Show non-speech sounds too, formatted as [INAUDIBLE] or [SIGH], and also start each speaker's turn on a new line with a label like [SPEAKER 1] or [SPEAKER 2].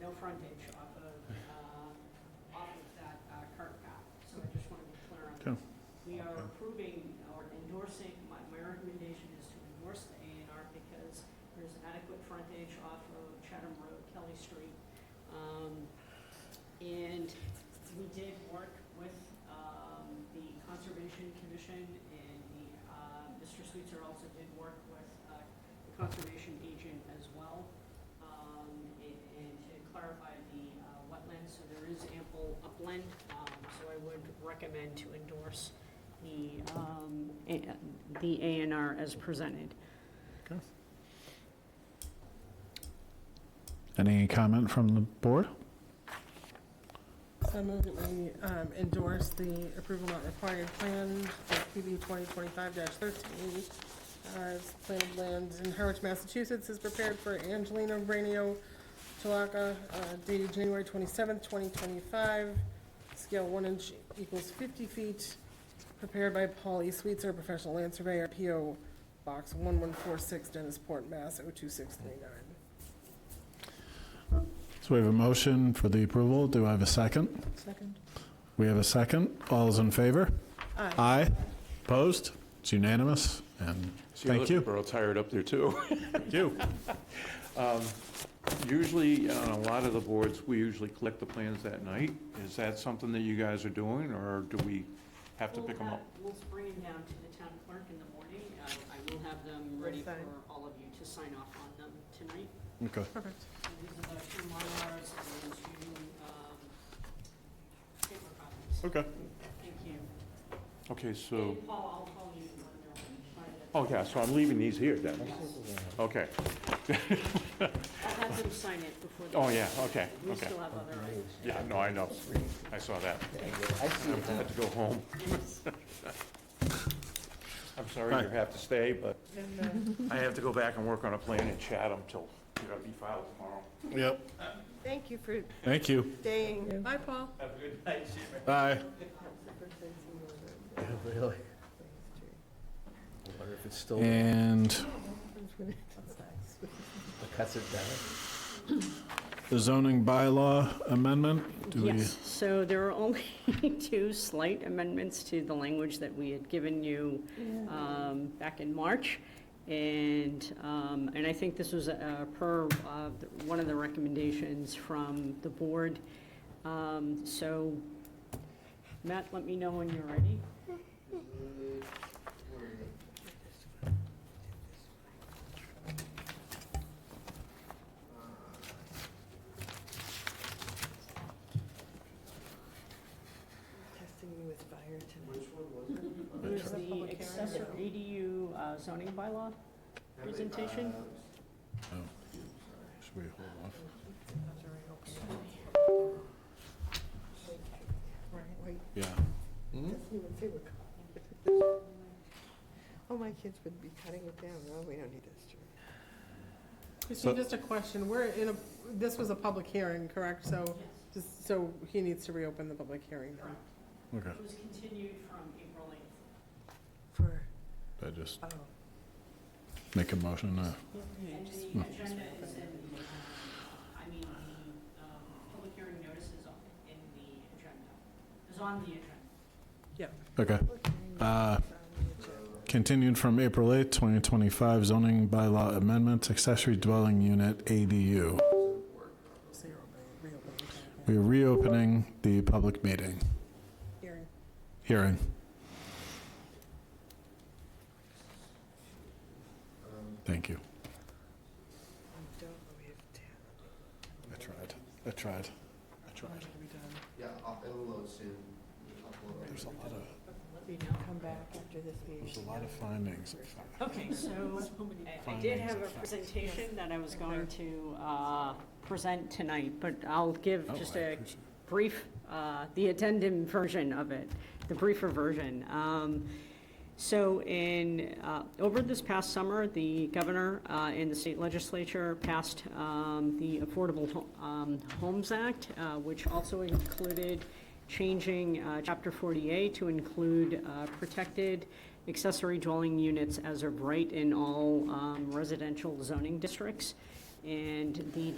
[SPEAKER 1] no frontage off of, uh, off of that uh, curb cut. So I just want to be clear on that.
[SPEAKER 2] Okay.
[SPEAKER 1] We are
[SPEAKER 2] Okay.
[SPEAKER 1] approving or endorsing, my, my recommendation is to endorse the A and R because there's adequate frontage off of Chatham Road, Kelly Street. Um, And we did work with um, the Conservation Commission and the, uh, Mr. Sweetser also did work with uh, the Conservation Agent as well um, and and to clarify the uh, wetlands, so there is ample upland, um, so I would recommend to endorse the, um, A- the A and R as presented.
[SPEAKER 2] Any comment from the board?
[SPEAKER 3] So I move that we um, endorse the approval not required plan for PB 2025-13 as planted lands in Harwich, Massachusetts is prepared for Angelina Brainio Chalaca uh, dated January 27th, 2025. Scale 1 inch equals 50 feet, prepared by Paul E. Sweetser, professional land surveyor, PO Box 1146, Dennisport, Mass. 02639.
[SPEAKER 2] So we have a motion for the approval. Do I have a second?
[SPEAKER 3] Second.
[SPEAKER 2] We have a second. All's in favor?
[SPEAKER 3] Aye.
[SPEAKER 2] Aye. Opposed? It's unanimous, and
[SPEAKER 4] See, other
[SPEAKER 2] Thank you.
[SPEAKER 4] people are all tired up there, too. Um,
[SPEAKER 2] thank
[SPEAKER 4] [LAUGHS]
[SPEAKER 2] you.
[SPEAKER 4] Usually, on a lot of the boards, we usually collect the plans that night. Is that something that you guys are doing, or do we have to
[SPEAKER 1] We'll
[SPEAKER 4] pick them up?
[SPEAKER 1] have- We'll bring them down to the town clerk in the morning. Uh, I will have them ready for
[SPEAKER 3] sign.
[SPEAKER 1] all of you to sign off on them tonight.
[SPEAKER 2] Okay.
[SPEAKER 3] Perfect.
[SPEAKER 1] So These are the two Mylars and those two um, paper copies.
[SPEAKER 2] Okay.
[SPEAKER 1] Thank you.
[SPEAKER 4] Okay, Oh. so,
[SPEAKER 1] And Paul, I'll call you when they're ready.
[SPEAKER 4] oh, yeah, so I'm leaving these here, then?
[SPEAKER 1] Yes.
[SPEAKER 4] Okay,
[SPEAKER 1] I'll have them sign it before. the-
[SPEAKER 4] oh, yeah, okay,
[SPEAKER 1] We
[SPEAKER 4] okay.
[SPEAKER 1] still have other items.
[SPEAKER 4] Yeah, no, I know, I saw that. I had to go home. I'm sorry you have to stay, but I have to go back and work on a plan in Chatham till, you gotta be filed tomorrow.
[SPEAKER 2] Yep.
[SPEAKER 3] Thank you for
[SPEAKER 2] Thank you.
[SPEAKER 3] staying. Bye, Paul.
[SPEAKER 2] Aye.
[SPEAKER 5] Really? I wonder if it's still, it
[SPEAKER 2] And
[SPEAKER 5] cuts it down.
[SPEAKER 2] the zoning bylaw amendment? Do we?
[SPEAKER 1] Yes, so there are only [LAUGHS] two slight amendments to the language that we had given you um, back in March. And, um, and I think this was uh, per uh, the- one of the recommendations from the board. Um, So, Matt, let me know when you're ready.
[SPEAKER 6] Testing me with fire tonight.
[SPEAKER 1] There's the accessory ADU uh, zoning bylaw presentation.
[SPEAKER 7] Uh,
[SPEAKER 2] Should we hold off?
[SPEAKER 6] Right, wait,
[SPEAKER 2] Yeah.
[SPEAKER 6] doesn't even say what color. Oh, my kids would be cutting it down. No, we don't need this, Jerry.
[SPEAKER 3] Christine, just a question, we're in a, this was a public hearing, correct? So, just, so he needs to reopen the public hearing then?
[SPEAKER 2] Okay.
[SPEAKER 1] It was continued from April 8th.
[SPEAKER 6] For,
[SPEAKER 2] I just
[SPEAKER 6] oh,
[SPEAKER 2] make a motion. uh,
[SPEAKER 1] And the agenda is in, the, uh, I mean, the um, public hearing notice is on- in the agenda, is on the agenda.
[SPEAKER 2] Okay. Uh,
[SPEAKER 6] it's on the agenda.
[SPEAKER 2] Continued from April 8, 2025, zoning bylaw amendments, accessory dwelling unit ADU.
[SPEAKER 3] So you're opening, reopening the public
[SPEAKER 2] We're reopening the public meeting,
[SPEAKER 3] hearing.
[SPEAKER 2] hearing. Thank you.
[SPEAKER 6] We don't, know we have to.
[SPEAKER 2] I tried. I tried. I tried.
[SPEAKER 7] Yeah, I'll- it'll load soon. Upload.
[SPEAKER 2] There's a lot of,
[SPEAKER 1] Let me know.
[SPEAKER 6] Come back after this meeting.
[SPEAKER 2] there's a lot of findings.
[SPEAKER 1] Okay, so [LAUGHS] uh, I- I did have a presentation that I was going to uh, present tonight, but I'll give
[SPEAKER 2] Oh,
[SPEAKER 1] just
[SPEAKER 2] I
[SPEAKER 1] a
[SPEAKER 2] appreciate
[SPEAKER 1] brief, uh, the addendum version of it, the briefer version. Um, So in, uh, over this past summer, the governor uh, and the state legislature passed um, the Affordable Ho- um, Homes Act, uh, which also included changing uh, Chapter 48 to include uh, protected accessory dwelling units as of right in all um, residential zoning districts. And the